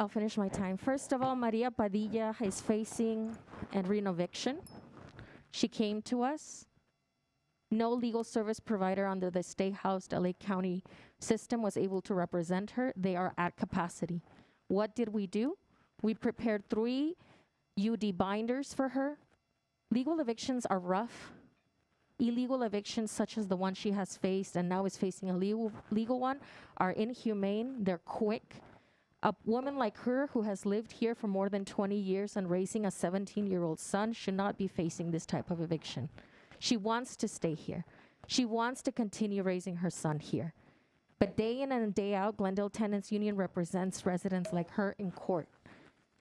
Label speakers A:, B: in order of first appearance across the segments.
A: I'll finish my time. First of all, Maria Padilla is facing and renoviction. She came to us. No legal service provider under the state housed LA County system was able to represent her. They are at capacity. What did we do? We prepared three UD binders for her. Legal evictions are rough. Illegal evictions, such as the one she has faced and now is facing a legal, legal one, are inhumane. They're quick. A woman like her, who has lived here for more than 20 years and raising a 17 year old son, should not be facing this type of eviction. She wants to stay here. She wants to continue raising her son here. But day in and day out, Glendale Tenants Union represents residents like her in court.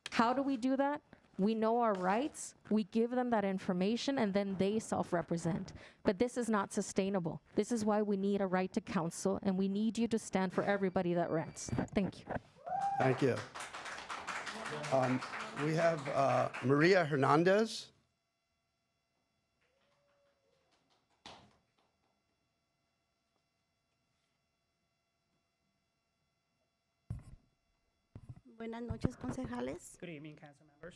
A: How do we do that? We know our rights, we give them that information, and then they self represent. But this is not sustainable. This is why we need a right to counsel, and we need you to stand for everybody that rents. Thank you.
B: Thank you. Um, We have uh, Maria Hernandez.
C: Buenas noches, concejales.
D: Good evening, council members.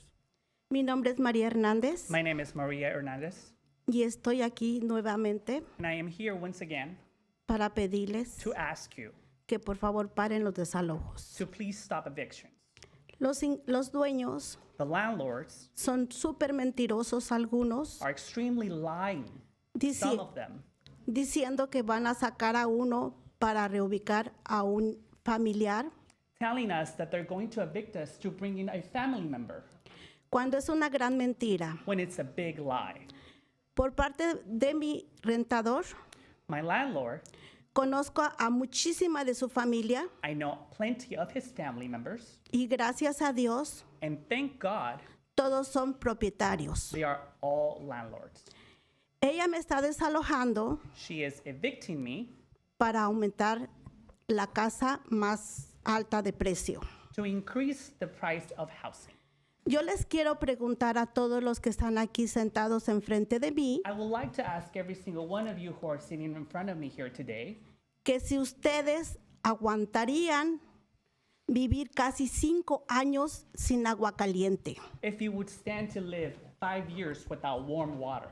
C: Mi nombre es María Hernández
D: My name is Maria Hernandez,
C: y estoy aquí nuevamente
D: and I am here once again
C: para pedirles
D: to ask you
C: que por favor paren los desalojos.
D: to please stop evictions.
C: Los, in- los dueños
D: The landlords
C: son súper mentirosos algunos,
D: are extremely lying,
C: dici-
D: some of them,
C: diciendo que van a sacar a uno para reubicar a un familiar,
D: telling us that they're going to evict us to bring in a family member
C: cuando es una gran mentira.
D: when it's a big lie.
C: Por parte de mi rentador,
D: My landlord,
C: conozco a- a muchísima de su familia
D: I know plenty of his family members,
C: y gracias a Dios
D: and thank God
C: todos son propietarios.
D: they are all landlords.
C: Ella me está desalojando
D: She is evicting me
C: para aumentar la casa más alta de precio.
D: to increase the price of housing.
C: Yo les quiero preguntar a todos los que están aquí sentados enfrente de mí
D: I would like to ask every single one of you who are sitting in front of me here today
C: que si ustedes aguantarían vivir casi cinco años sin agua caliente,
D: if you would stand to live five years without warm water.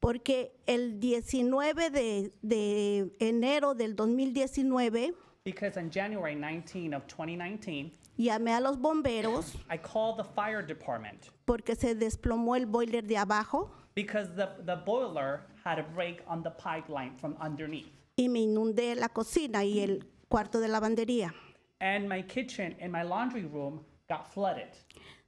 C: porque el 19 de, de enero del 2019
D: Because on January 19 of 2019,
C: llamé a los bomberos
D: I called the fire department
C: porque se desplomó el boiler de abajo
D: because the, the boiler had a break on the pipeline from underneath.
C: y me inundé la cocina y el cuarto de lavandería.
D: And my kitchen and my laundry room got flooded.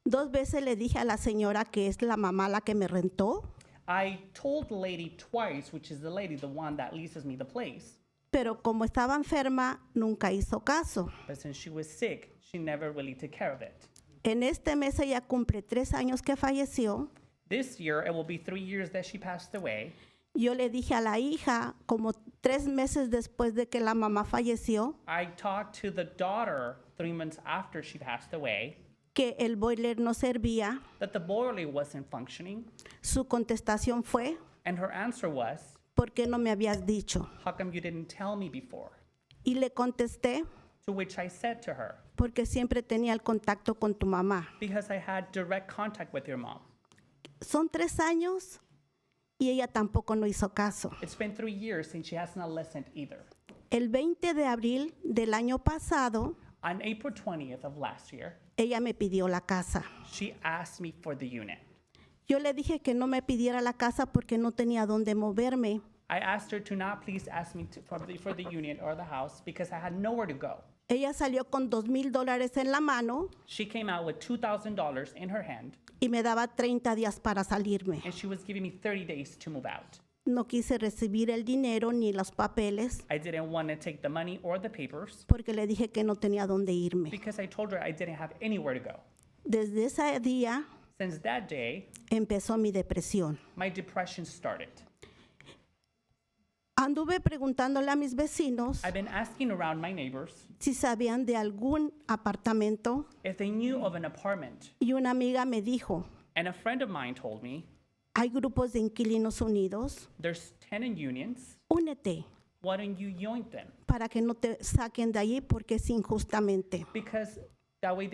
C: Dos veces le dije a la señora que es la mamá la que me rentó,
D: I told the lady twice, which is the lady, the one that leases me the place,
C: pero como estaba enferma nunca hizo caso.
D: but since she was sick, she never really took care of it.
C: En este mes ella cumple tres años que falleció.
D: This year, it will be three years that she passed away.
C: Yo le dije a la hija, como tres meses después de que la mamá falleció,
D: I talked to the daughter three months after she passed away
C: que el boiler no servía.
D: that the boiler wasn't functioning,
C: Su contestación fue,
D: and her answer was,
C: ¿por qué no me habías dicho?
D: How come you didn't tell me before?
C: Y le contesté,
D: To which I said to her,
C: porque siempre tenía el contacto con tu mamá.
D: Because I had direct contact with your mom.
C: Son tres años y ella tampoco no hizo caso.
D: It's been three years since she has not listened either.
C: El 20 de abril del año pasado,
D: On April 20th of last year,
C: ella me pidió la casa.
D: she asked me for the unit.
C: Yo le dije que no me pidiera la casa porque no tenía dónde moverme.
D: I asked her to not please ask me to, for, the, for the unit or the house because I had nowhere to go.
C: Ella salió con dos mil dólares en la mano
D: She came out with $2,000 in her hand
C: y me daba 30 días para salirme.
D: and she was giving me 30 days to move out.
C: No quise recibir el dinero ni los papeles
D: I didn't want to take the money or the papers
C: porque le dije que no tenía dónde irme.
D: because I told her I didn't have anywhere to go.
C: Desde ese día
D: Since that day,
C: empezó mi depresión.
D: my depression started.
C: Anduve preguntándole a mis vecinos
D: I've been asking around my neighbors
C: si sabían de algún apartamento
D: if they knew of an apartment,
C: y una amiga me dijo,
D: and a friend of mine told me
C: Hay grupos de inquilinos unidos.
D: there's tenant unions.
C: Únete
D: Why don't you join them?
C: para que no te saquen de allí porque es injustamente.
D: Because that way